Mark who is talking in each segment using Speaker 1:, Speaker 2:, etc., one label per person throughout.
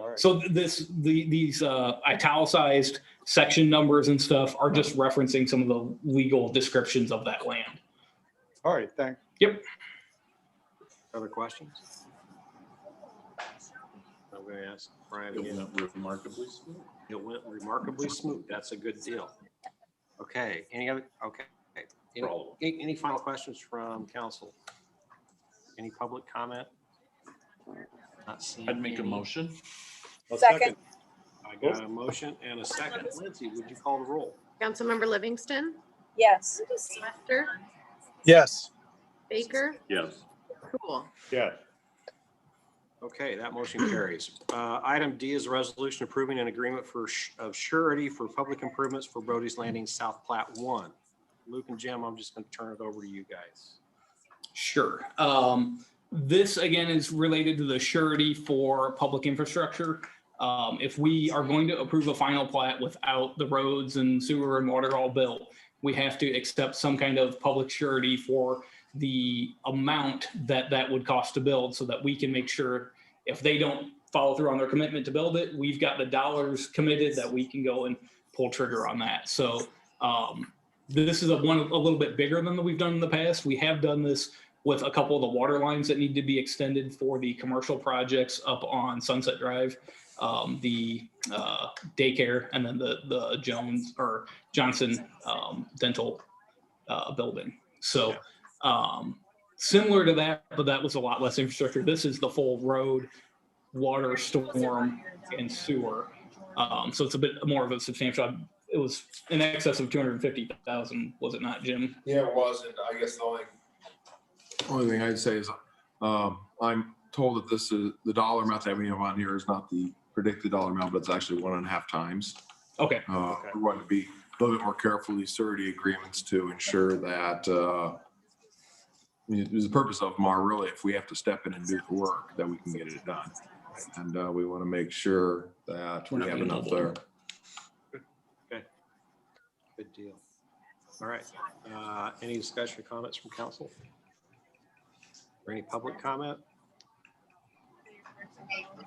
Speaker 1: all right.
Speaker 2: So th- this, the, these uh, italicized section numbers and stuff are just referencing some of the legal descriptions of that land.
Speaker 1: All right, thanks.
Speaker 3: Other questions? I'm going to ask Brian
Speaker 4: It
Speaker 3: again.
Speaker 4: went remarkably smooth.
Speaker 3: It went remarkably smooth. That's a good deal. Okay, any other, okay. Any-
Speaker 4: for all of them.
Speaker 3: Any, any final questions from council? Any public comment? Not seeing.
Speaker 4: I'd make a
Speaker 3: any.
Speaker 4: motion.
Speaker 1: I'll
Speaker 5: Second.
Speaker 3: I got a motion and a second. Lindsay, would you call the roll?
Speaker 6: Councilmember Livingston,
Speaker 5: Yes.
Speaker 6: Lester,
Speaker 1: Yes.
Speaker 6: Baker,
Speaker 4: Yes.
Speaker 6: Cool.
Speaker 1: Yeah.
Speaker 3: Okay, that motion carries. Uh, Item D is a resolution approving an agreement for, sh- of surety for public improvements for Brody's Landing South Plat One. Luke and Jim, I'm just going to turn it over to you guys.
Speaker 2: Sure. Um, this again is related to the surety for public infrastructure. Um, if we are going to approve a final plat without the roads and sewer and water all built, we have to accept some kind of public surety for the amount that that would cost to build so that we can make sure if they don't follow through on their commitment to build it, we've got the dollars committed that we can go and pull trigger on that. So, um, this is a one, a little bit bigger than that we've done in the past. We have done this with a couple of the water lines that need to be extended for the commercial projects up on Sunset Drive, um, the uh, daycare, and then the the Jones or Johnson um, Dental uh, building. So um, similar to that, but that was a lot less infrastructure. This is the full road, water, storm, and sewer. Um, so it's a bit more of a substantial. It was in excess of two hundred fifty thousand, was it not, Jim?
Speaker 7: Yeah, it was, and I guess the only,
Speaker 4: Only thing I'd say is, um, I'm told that this is, the dollar amount that we have on here is not the predicted dollar amount, but it's actually one and a half times.
Speaker 2: Okay.
Speaker 4: Uh,
Speaker 1: Okay.
Speaker 4: we want to be a little bit more careful with these surety agreements to ensure that, uh, I mean, the purpose of them are really, if we have to step in and do the work, that we can get it done. And, uh, we want to make sure that
Speaker 2: We're
Speaker 4: we
Speaker 2: not
Speaker 4: have
Speaker 2: gonna
Speaker 4: enough
Speaker 2: double
Speaker 4: there.
Speaker 2: them.
Speaker 3: Good deal. All right. Uh, Any discussion or comments from council? Or any public comment?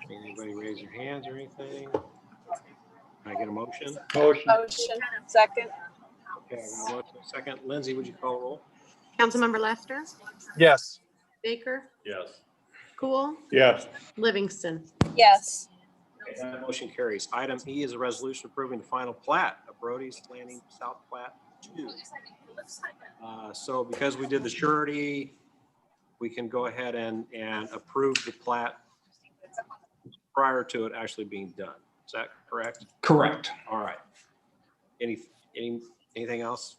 Speaker 3: Anybody raise their hands or anything? Can I get a motion?
Speaker 1: Motion.
Speaker 5: Motion. Second.
Speaker 3: Okay, I got a motion. Second, Lindsay, would you call roll?
Speaker 6: Councilmember Lester,
Speaker 1: Yes.
Speaker 6: Baker,
Speaker 4: Yes.
Speaker 6: Cool,
Speaker 1: Yes.
Speaker 6: Livingston.
Speaker 5: Yes.
Speaker 3: Okay, That motion carries. Item E is a resolution approving the final plat of Brody's Landing South Plat Two. Uh, So because we did the surety, we can go ahead and, and approve the plat prior to it actually being done. Is that correct?
Speaker 2: Correct.
Speaker 3: All right. Any, any, anything else?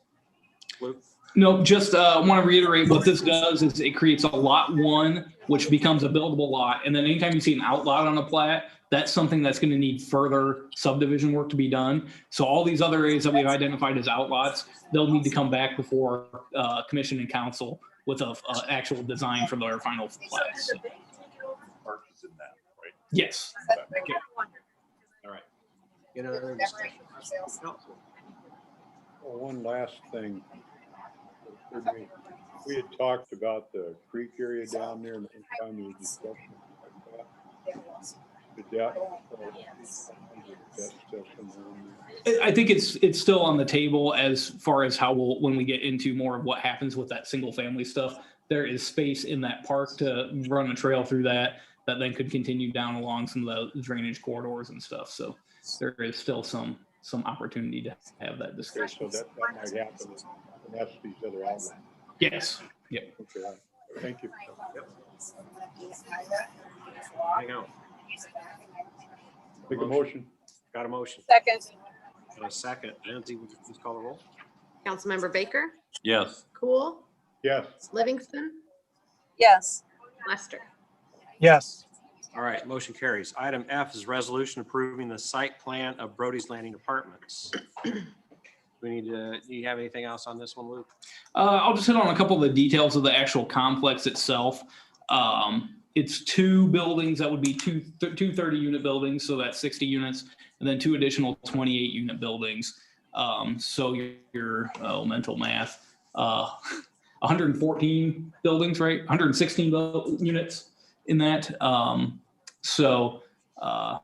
Speaker 3: Luke?
Speaker 2: No, just uh, want to reiterate what this does is it creates a lot one, which becomes a buildable lot. And then anytime you see an outlot on a plat, that's something that's going to need further subdivision work to be done. So all these other areas that we've identified as outlots, they'll need to come back before uh, commission and council with a, a actual design for their final plats. Yes.
Speaker 3: Any other discussion? Council?
Speaker 1: Well, One last thing. We- We had talked about the creek area down there and anytime there was discussion like that. Did that? That's definitely on there.
Speaker 2: I I think it's, it's still on the table as far as how we'll, when we get into more of what happens with that single family stuff. There is space in that park to run a trail through that, that then could continue down along some of the drainage corridors and stuff. So there is still some, some opportunity to have that
Speaker 1: Okay,
Speaker 2: discussion.
Speaker 1: So that, that might happen. And that's these other outlets.
Speaker 2: Yes.
Speaker 1: Okay, all right. thank you.
Speaker 3: Hang on.
Speaker 1: Make a motion.
Speaker 3: Got a motion?
Speaker 5: Second.
Speaker 3: Got a second? Lindsay, would you please call the roll?
Speaker 6: Councilmember Baker,
Speaker 4: Yes.
Speaker 6: Cool,
Speaker 1: Yes.
Speaker 6: Livingston,
Speaker 5: Yes.
Speaker 6: Lester.
Speaker 1: Yes.
Speaker 3: All right, motion carries. Item F is resolution approving the site plan of Brody's Landing Apartments. We need to, do you have anything else on this one, Luke?
Speaker 2: Uh, I'll just hit on a couple of the details of the actual complex itself. Um, it's two buildings that would be two, th- two 30 unit buildings, so that's 60 units, and then two additional 28 unit buildings. Um, so your, your oh, mental math, uh, 114 buildings, right? 116 bu- units in that. Um, so uh,